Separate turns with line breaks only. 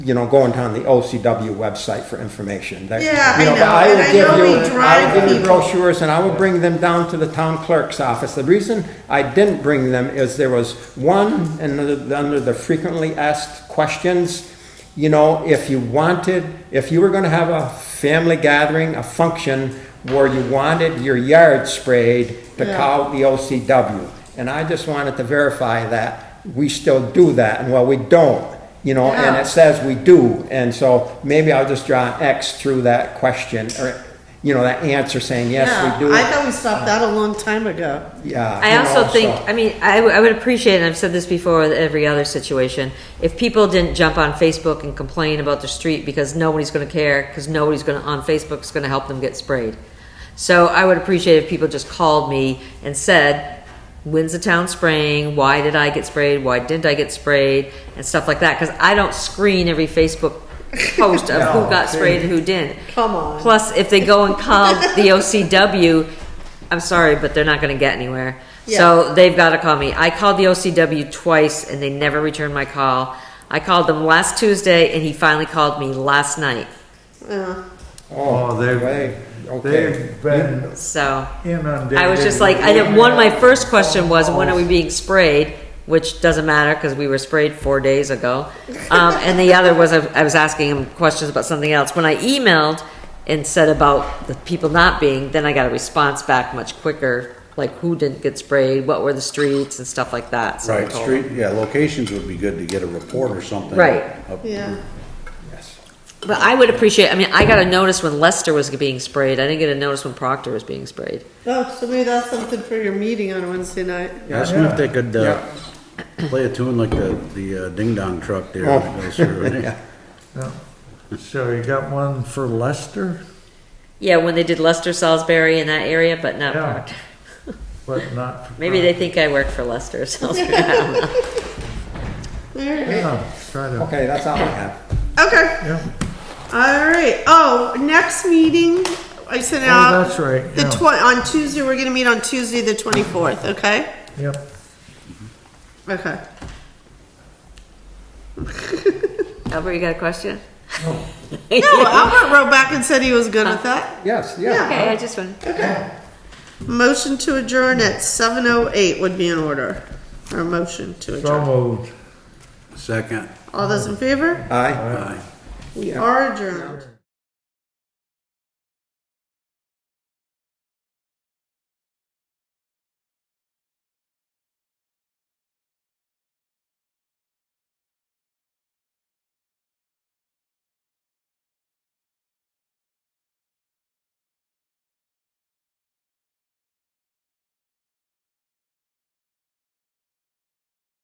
you know, going on the OCW website for information. That-
Yeah,
you
I
but
know,
would
and I
give
know
you-
we
I
drive
would give you
people.
brochures, and I would bring them down to the town clerk's office. The reason I didn't bring them is there was one, and the- under the frequently asked questions, you know, if you wanted, if you were gonna have a family gathering, a function, where you wanted your yard sprayed to
Yeah.
cow the OCW. And I just wanted to verify that we still do that, and well, we don't, you know, and
Yeah.
it's says we do, and so maybe I'll just draw an X through that question, or, you know, that answer saying, yes,
Yeah,
we do.
I thought we stopped that a long time ago.
Yeah.
I
you
also
know,
think,
so-
I mean, I, w- I would appreciate, and I've said this before with every other situation, if people didn't jump on Facebook and complain about the street because nobody's gonna care, because nobody's gonna, on Facebook's gonna help them get sprayed. So I would appreciate if people just called me and said, when's the town spraying? Why did I get sprayed? Why didn't I get sprayed? And stuff like that, because I don't screen every Facebook post of who
No,
got
see.
sprayed and who didn't.
Come on.
Plus, if they go and call the OCW, I'm sorry, but they're not gonna get anywhere. So they've gotta call me. I called the OCW twice and they never returned my call. I called them last Tuesday and he finally called me last night.
Yeah.
Oh,
Oh,
wait,
they've,
okay.
they've been
So
inundated.
I was just like, I didn't, one, my first question was, when are we being sprayed? Which doesn't matter because we were sprayed four days ago. Um, and the other was, I I was asking him questions about something else. When I emailed and said about the people not being, then I got a response back much quicker, like who didn't get sprayed, what were the streets and stuff like that. So I
Right,
told him.
street, yeah, locations would be good to get a report or something.
Right.
Up-
Yeah.
Yes.
But I would appreciate, I mean, I got a notice when Lester was being sprayed. I didn't get a notice when Proctor was being sprayed.
Oh, so maybe that's something for your meeting on Wednesday night.
Ask them if they could, uh, play a tune like the, the uh, ding dong truck there that goes through.
So you got one for Lester,
Yeah, when they did Lester Salisbury in that area, but not
Yeah.
Proctor.
but not. for-
Maybe they think I work for Lester or something.
All right.
Yeah, try to,
Okay, that's all I have.
Okay.
yeah,
All right. Oh, next meeting, I sent out.
that's right,
The
yeah.
twen- on Tuesday, we're gonna meet on Tuesday, the twenty-fourth, okay?
yep.
Okay.
Albert, you got a question?
No, Oh, Albert wrote back and said he was good with that.
Yes, yeah.
Okay, I just want,
Motion to adjourn at seven oh eight would be in order. Or motion to
So
adjourn.
moved.
Second,
All those in favor?
Aye.
aye.
We are adjourned.